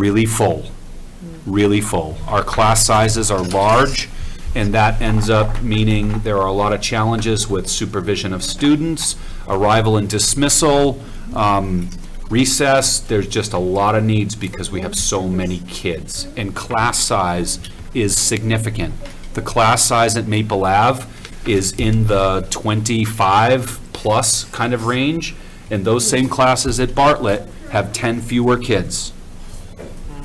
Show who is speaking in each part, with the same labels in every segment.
Speaker 1: really full, really full. Our class sizes are large, and that ends up meaning there are a lot of challenges with supervision of students, arrival and dismissal, um, recess, there's just a lot of needs because we have so many kids. And class size is significant. The class size at Maple Ave is in the 25-plus kind of range, and those same classes at Bartlett have 10 fewer kids.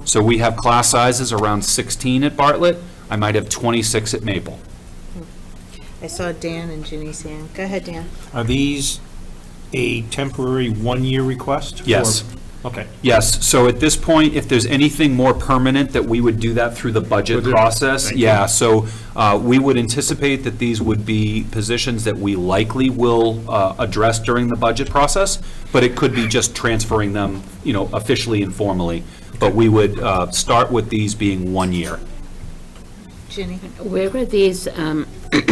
Speaker 1: So we have class sizes around 16 at Bartlett, I might have 26 at Maple.
Speaker 2: I saw Dan and Ginny's hand. Go ahead, Dan.
Speaker 3: Are these a temporary one-year request? for-
Speaker 1: Yes.
Speaker 3: Okay.
Speaker 1: Yes, so at this point, if there's anything more permanent, that we would do that through the budget
Speaker 3: Budget,
Speaker 1: process.
Speaker 3: thank you.
Speaker 1: Yeah, so uh, we would anticipate that these would be positions that we likely will uh, address during the budget process, but it could be just transferring them, you know, officially and formally. But we would uh, start with these being one year.
Speaker 2: Ginny?
Speaker 4: Where are these um,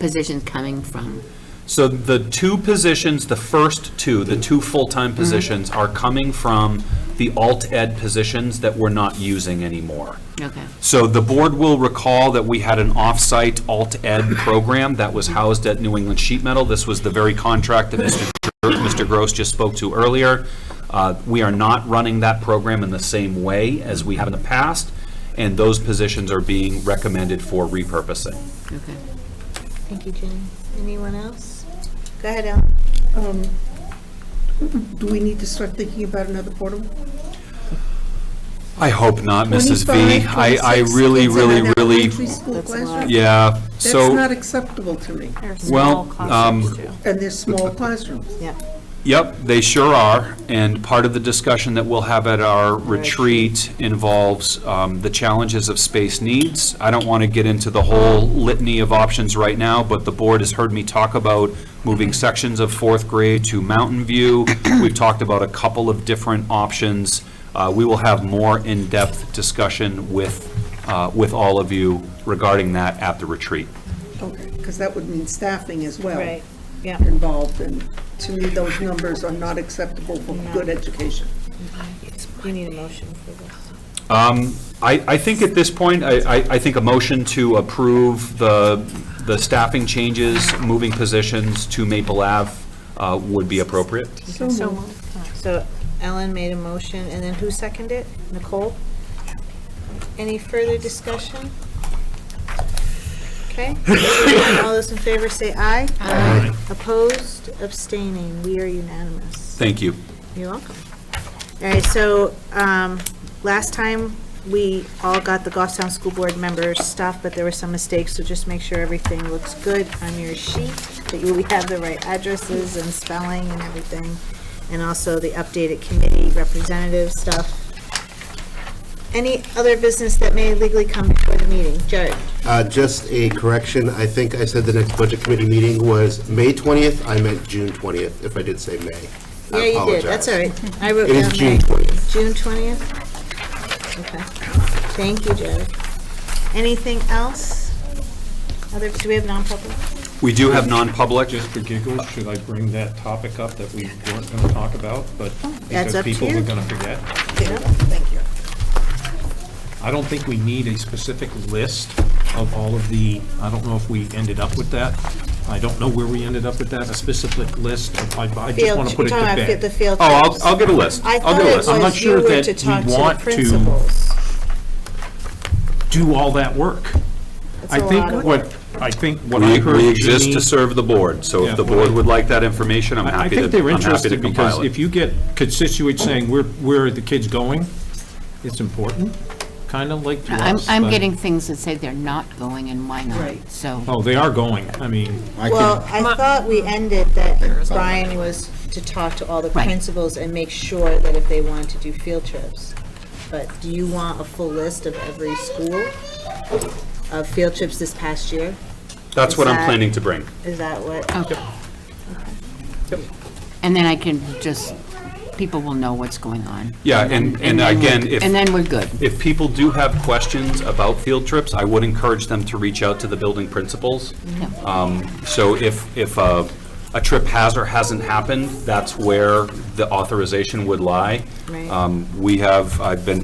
Speaker 4: positions coming from?
Speaker 1: So the two positions, the first two, the two full-time positions are coming from the alt-ed positions that we're not using anymore.
Speaker 4: Okay.
Speaker 1: So the board will recall that we had an off-site alt-ed program that was housed at New England Sheet Metal. This was the very contract that Mr. Gro- Mr. Gross just spoke to earlier. Uh, We are not running that program in the same way as we have in the past, and those positions are being recommended for repurposing.
Speaker 4: Okay.
Speaker 2: Thank you, Ginny. Anyone else? Go ahead, Ellen.
Speaker 5: Um, Do we need to start thinking about another portable?
Speaker 1: I hope not, Mrs. V.
Speaker 5: 25,
Speaker 1: I, I
Speaker 5: 26
Speaker 1: really,
Speaker 5: kids in
Speaker 1: really,
Speaker 5: an elementary
Speaker 1: really,
Speaker 5: school
Speaker 6: That's a
Speaker 5: classroom?
Speaker 6: lot.
Speaker 1: yeah,
Speaker 5: That's not
Speaker 1: so,
Speaker 5: acceptable to me,
Speaker 1: well, um,
Speaker 5: and they're small classrooms.
Speaker 6: Yeah.
Speaker 1: Yep, they sure are, and part of the discussion that we'll have at our retreat involves um, the challenges of space needs. I don't want to get into the whole litany of options right now, but the board has heard me talk about moving sections of fourth grade to Mountain View. We've talked about a couple of different options. Uh, We will have more in-depth discussion with, uh, with all of you regarding that at the retreat.
Speaker 5: Okay, because that would mean staffing as well.
Speaker 2: Right, yeah.
Speaker 5: Involved, and to me, those numbers are not acceptable for good education.
Speaker 2: You need a motion for this.
Speaker 1: Um, I, I think at this point, I, I I think a motion to approve the, the staffing changes, moving positions to Maple Ave uh, would be appropriate.
Speaker 5: So
Speaker 2: So Ellen made a motion, and then who seconded it? Nicole? Any further discussion? Okay. All those in favor say aye. Aye. Opposed, abstaining, we are unanimous.
Speaker 1: Thank you.
Speaker 2: You're welcome. All right, so, um, last time, we all got the Goffstown School Board members' stuff, but there were some mistakes, so just make sure everything looks good on your sheet, that you we have the right addresses and spelling and everything, and also the updated committee representative stuff. Any other business that may legally come before the meeting? Jared?
Speaker 7: Uh, Just a correction, I think I said the next Budget Committee meeting was May 20th, I meant June 20th, if I did say May. I
Speaker 2: Yeah, you did,
Speaker 7: apologize.
Speaker 2: that's all right. I wrote
Speaker 7: It is
Speaker 2: down
Speaker 7: June
Speaker 2: May.
Speaker 7: 20th.
Speaker 2: June 20th? Okay. Thank you, Jared. Anything else? Other, do we have non-public?
Speaker 1: We do have non-public.
Speaker 3: Just for giggles, should I bring that topic up that we weren't going to talk about, but
Speaker 2: Oh, That's
Speaker 3: because
Speaker 2: up to
Speaker 3: people
Speaker 2: you.
Speaker 3: were going to forget?
Speaker 2: Thank you.
Speaker 3: I don't think we need a specific list of all of the, I don't know if we ended up with that. I don't know where we ended up with that, a specific list. of- I I just want
Speaker 2: Field,
Speaker 3: to put
Speaker 2: you're
Speaker 3: it to
Speaker 2: talking about
Speaker 3: bed.
Speaker 2: the field
Speaker 1: Oh, I'll,
Speaker 2: trips.
Speaker 1: I'll get a list.
Speaker 2: I
Speaker 1: I'll
Speaker 2: thought
Speaker 1: get a
Speaker 2: it
Speaker 1: list.
Speaker 3: I'm not
Speaker 2: was you
Speaker 3: sure
Speaker 2: were
Speaker 3: that
Speaker 2: to
Speaker 3: we
Speaker 2: talk to the
Speaker 3: want to-
Speaker 2: principals.
Speaker 3: do all that work.
Speaker 2: That's
Speaker 3: I
Speaker 2: a lot of
Speaker 3: think what, I think what I
Speaker 1: We,
Speaker 3: heard.
Speaker 1: we exist
Speaker 3: Jeanine-
Speaker 1: to serve the board, so
Speaker 3: Yeah,
Speaker 1: if the
Speaker 3: well,
Speaker 1: board
Speaker 3: I-
Speaker 1: would like that information, I'm
Speaker 3: I I
Speaker 1: happy to,
Speaker 3: think they're
Speaker 1: I'm happy to
Speaker 3: interested because
Speaker 1: compile it.
Speaker 3: if you get constituents saying, where, where are the kids going? It's important, kind of like to
Speaker 4: I'm,
Speaker 3: us,
Speaker 4: I'm
Speaker 3: but-
Speaker 4: getting things that say they're not going and why not,
Speaker 5: Right.
Speaker 4: so.
Speaker 3: Oh, they are going. I mean,
Speaker 2: Well, I thought we ended that Brian was to talk to all the
Speaker 4: Right.
Speaker 2: principals and make sure that if they wanted to do field trips. But do you want a full list of every school of field trips this past year?
Speaker 1: That's what I'm
Speaker 2: Exact-
Speaker 1: planning to bring.
Speaker 2: Is that what?
Speaker 4: Okay. And then I can just, people will know what's going on.
Speaker 1: Yeah, and, and
Speaker 4: then
Speaker 1: again,
Speaker 4: we're-
Speaker 1: if.
Speaker 4: And then we're good.
Speaker 1: If people do have questions about field trips, I would encourage them to reach out to the building principals. Um, So if, if a a trip has or hasn't happened, that's where the authorization would lie.
Speaker 2: Right.
Speaker 1: Um, We have, I've been